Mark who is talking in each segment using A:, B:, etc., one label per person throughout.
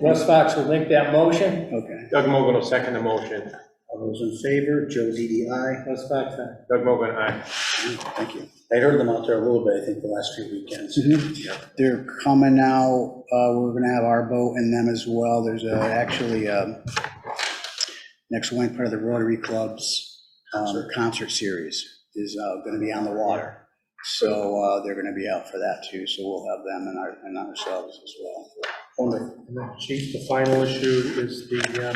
A: Russ Fox will make that motion.
B: Okay.
C: Doug Mogul will second the motion.
B: All those in favor, Joe Didi, aye.
A: Russ Fox,
D: uh,
A: aye.
C: Doug Mogul, aye.
B: Thank you. I heard them out there a little bit, I think, the last few weekends. Mm-hmm. They're coming now, uh, we're gonna have our boat and them as well. There's uh, actually, um, next week, part of the Rotary Club's um, concert series is uh, gonna be on the water. So uh, they're gonna be out for that too, so we'll have them and our- and ourselves as well. Wonderful.
D: And then, Chief, the final issue is the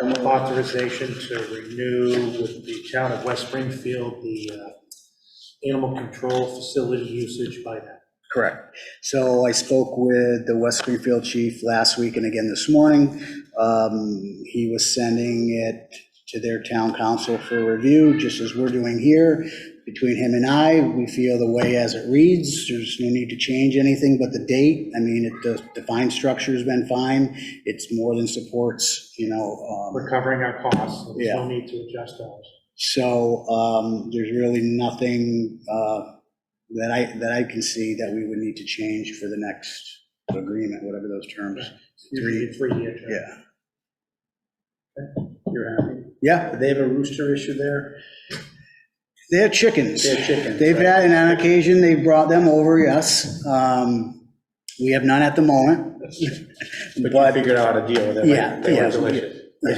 D: um, authorization to renew with the town of West Springfield the uh, animal control facility usage by that.
B: Correct. So I spoke with the West Springfield chief last week and again this morning. Um, He was sending it to their town council for review, just as we're doing here. Between him and I, we feel the way as it reads, there's no need to change anything but the date. I mean, it- the defined structure's been fine. It's more than supports, you know. um,
D: We're covering our costs, so there's no
B: Yeah.
D: need to adjust ours.
B: so um, there's really nothing uh, that I, that I can see that we would need to change for the next agreement, whatever those terms.
D: Usually a three-year term.
B: Yeah.
D: You're happy?
B: Yeah,
D: They have a rooster issue there?
B: they had chickens.
D: They have chickens.
B: They've
D: right?
B: had, and on occasion, they brought them over, yes. Um, We have none at the moment.
C: But you figured out a deal with it, right?
B: Yeah,
C: They
B: yeah.
C: were delicious.
D: I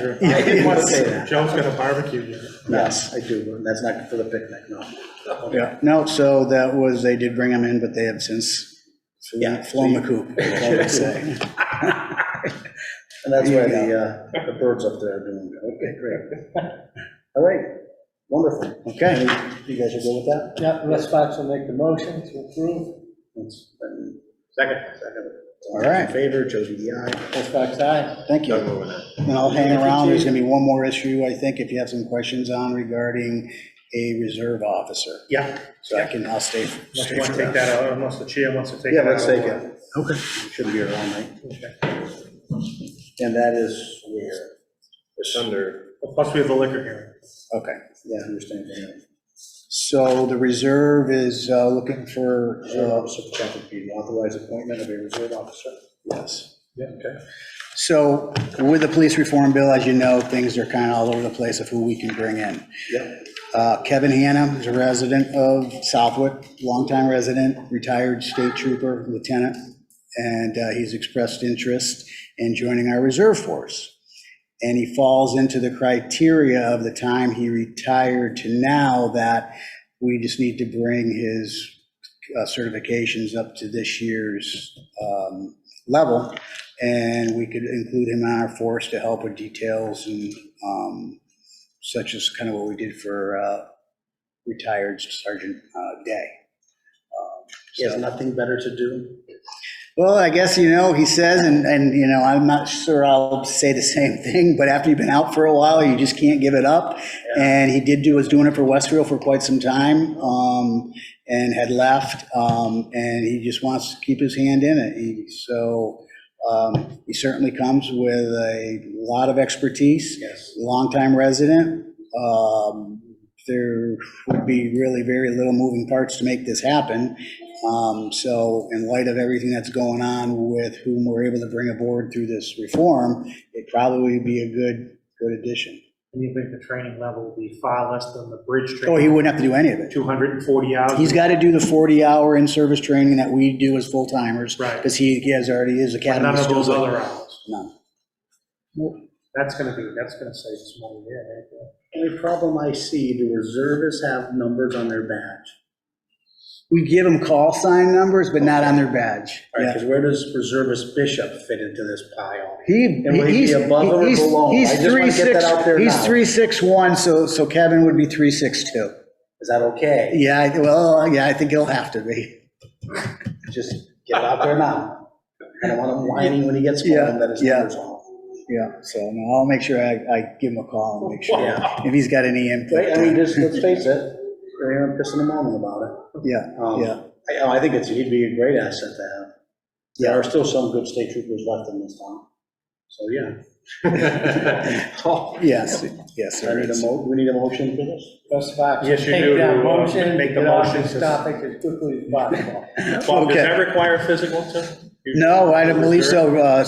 D: didn't want to say
B: Yes,
D: that. Joe's got a barbecue unit.
B: Yes.
E: I do, that's not for the picnic, no.
B: Yeah, no, so that was, they did bring them in, but they have since
E: Yeah.
B: flown the coop, I would say.
E: And that's
B: There
E: why
B: you
E: the, uh, the birds up there are doing, it. okay, great. All right, wonderful.
B: Okay.
E: You guys are good with that?
A: Yeah, Russ Fox will make the motion to approve.
E: That's- and
C: Second.
B: All right.
E: In favor, Joe DDI.
A: Russ Fox, aye.
B: Thank you.
C: Doug Mogul, aye.
B: And I'll hang around, there's gonna be one more issue, I think, if you have some questions on regarding a reserve officer.
D: Yeah,
B: So I can, I'll stay.
D: unless you want to take that out, unless the chair wants to take that
E: Yeah,
D: out.
E: let's take it.
B: Okay.
E: Shouldn't be around, right?
D: Okay.
E: And that is where,
C: It's under,
D: Plus, we have the liquor here.
B: Okay.
E: yeah, I understand. yeah.
B: So the reserve is uh, looking for,
E: Reserve
B: uh,
E: officer, protected be authorized appointment of a reserve officer.
B: yes.
D: Yeah, okay.
B: So with the police reform bill, as you know, things are kind of all over the place of who we can bring in.
E: Yep.
B: Uh, Kevin Hanna is a resident of Southwick, longtime resident, retired state trooper, lieutenant, and uh, he's expressed interest in joining our reserve force. And he falls into the criteria of the time he retired to now that we just need to bring his uh, certifications up to this year's um, level. And we could include him on our force to help with details and um, such as kind of what we did for uh, retired Sergeant uh, Day.
E: He has nothing better to do.
B: Well, I guess, you know, he says, and, and, you know, I'm not sure I'll say the same thing, but after you've been out for a while, you just can't give it up. And he did do, was doing it for Westfield for quite some time, um, and had left, um, and he just wants to keep his hand in it. He- So, um, he certainly comes with a lot of expertise.
E: Yes.
B: longtime resident. Um, There would be really very little moving parts to make this happen. Um, So in light of everything that's going on with whom we're able to bring aboard through this reform, it'd probably be a good, good addition.
D: And you think the training level will be far less than the bridge training?
B: Oh, he wouldn't have to do any of it.
D: 240 hours?
B: He's got to do the 40-hour in-service training that we do as full-timers.
D: Right.
B: Because he he has already, his academy.
D: None of
B: skills
D: those
B: are-
D: other hours.
B: None.
D: That's gonna be, that's gonna save some money there, right?
E: Only problem I see, do reservists have numbers on their badge?
B: We give them call sign numbers, but not on their badge.
E: All right,
B: Yeah.
E: because where does reservist bishop fit into this pile?
B: He,
E: And would he be
B: he's,
E: above or
B: he's,
E: below? I
B: he's
E: just wanna
B: three
E: get that
B: six,
E: out there
B: he's
E: now.
B: three six one, so, so Kevin would be three six two.
E: Is that okay?
B: Yeah, I- well, yeah, I think he'll have to be.
E: Just get it out there now. I don't want him whining when he gets
B: Yeah,
E: home that his
B: yeah.
E: numbers off.
B: Yeah, so no, I'll make sure I, I give him a call and make sure
E: Yeah.
B: if he's got any
E: Right, I mean,
B: input.
E: just, let's face it, we're here and pissing and moaning about it.
B: Yeah,
E: Um,
B: Yeah.
E: I, oh, I think it's, he'd be a great asset to have. There are still some good state troopers left in this town. So, yeah. Oh,
B: yes, yes,
E: I
B: there
E: need a
B: is.
E: mo, we need a motion for this?
A: Russ Fox.
D: Yes, you
A: take
D: do,
A: that
D: uh,
A: motion,
D: make the
A: get off
D: motion
A: this
D: to-
A: Topic as quickly as possible.
C: Bob, does
B: Okay.
C: that require a physical too?
B: No, I don't believe so. Uh,